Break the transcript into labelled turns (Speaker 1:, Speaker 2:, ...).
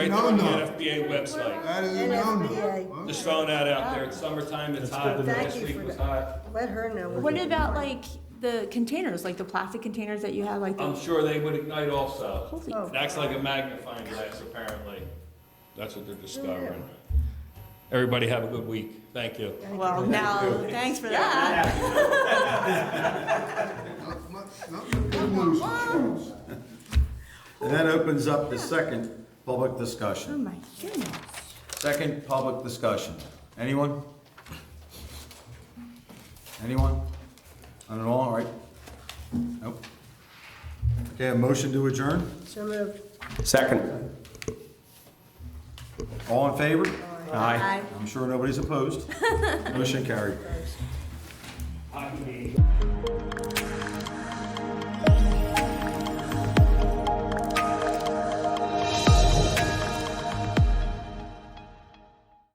Speaker 1: Right there
Speaker 2: No,
Speaker 1: on the
Speaker 2: no.
Speaker 1: NFPA website.
Speaker 2: That is a no-no.
Speaker 3: NFPA.
Speaker 2: Huh?
Speaker 1: Just throwing that out there. It's summertime, it's hot,
Speaker 3: good to know.
Speaker 1: last week was hot.
Speaker 3: Let her know.
Speaker 4: What about like the containers, like the plastic containers that you have, like
Speaker 1: I'm
Speaker 4: the,
Speaker 1: sure they would ignite also.
Speaker 4: holy,
Speaker 3: Oh.
Speaker 1: It acts like a magnifying glass, apparently. That's what they're discovering. Everybody have a good week. Thank you.
Speaker 4: well, now, thanks for that.
Speaker 2: Not- not- not the good news.
Speaker 5: And that opens up the second public
Speaker 4: Oh
Speaker 5: discussion.
Speaker 4: my goodness.
Speaker 5: Second public discussion. Anyone? Anyone? Not at all, all right? Nope. Okay, a motion to adjourn?
Speaker 3: So moved.
Speaker 5: Second. All in favor?
Speaker 4: Aye.
Speaker 5: I'm sure nobody's opposed. Motion carried.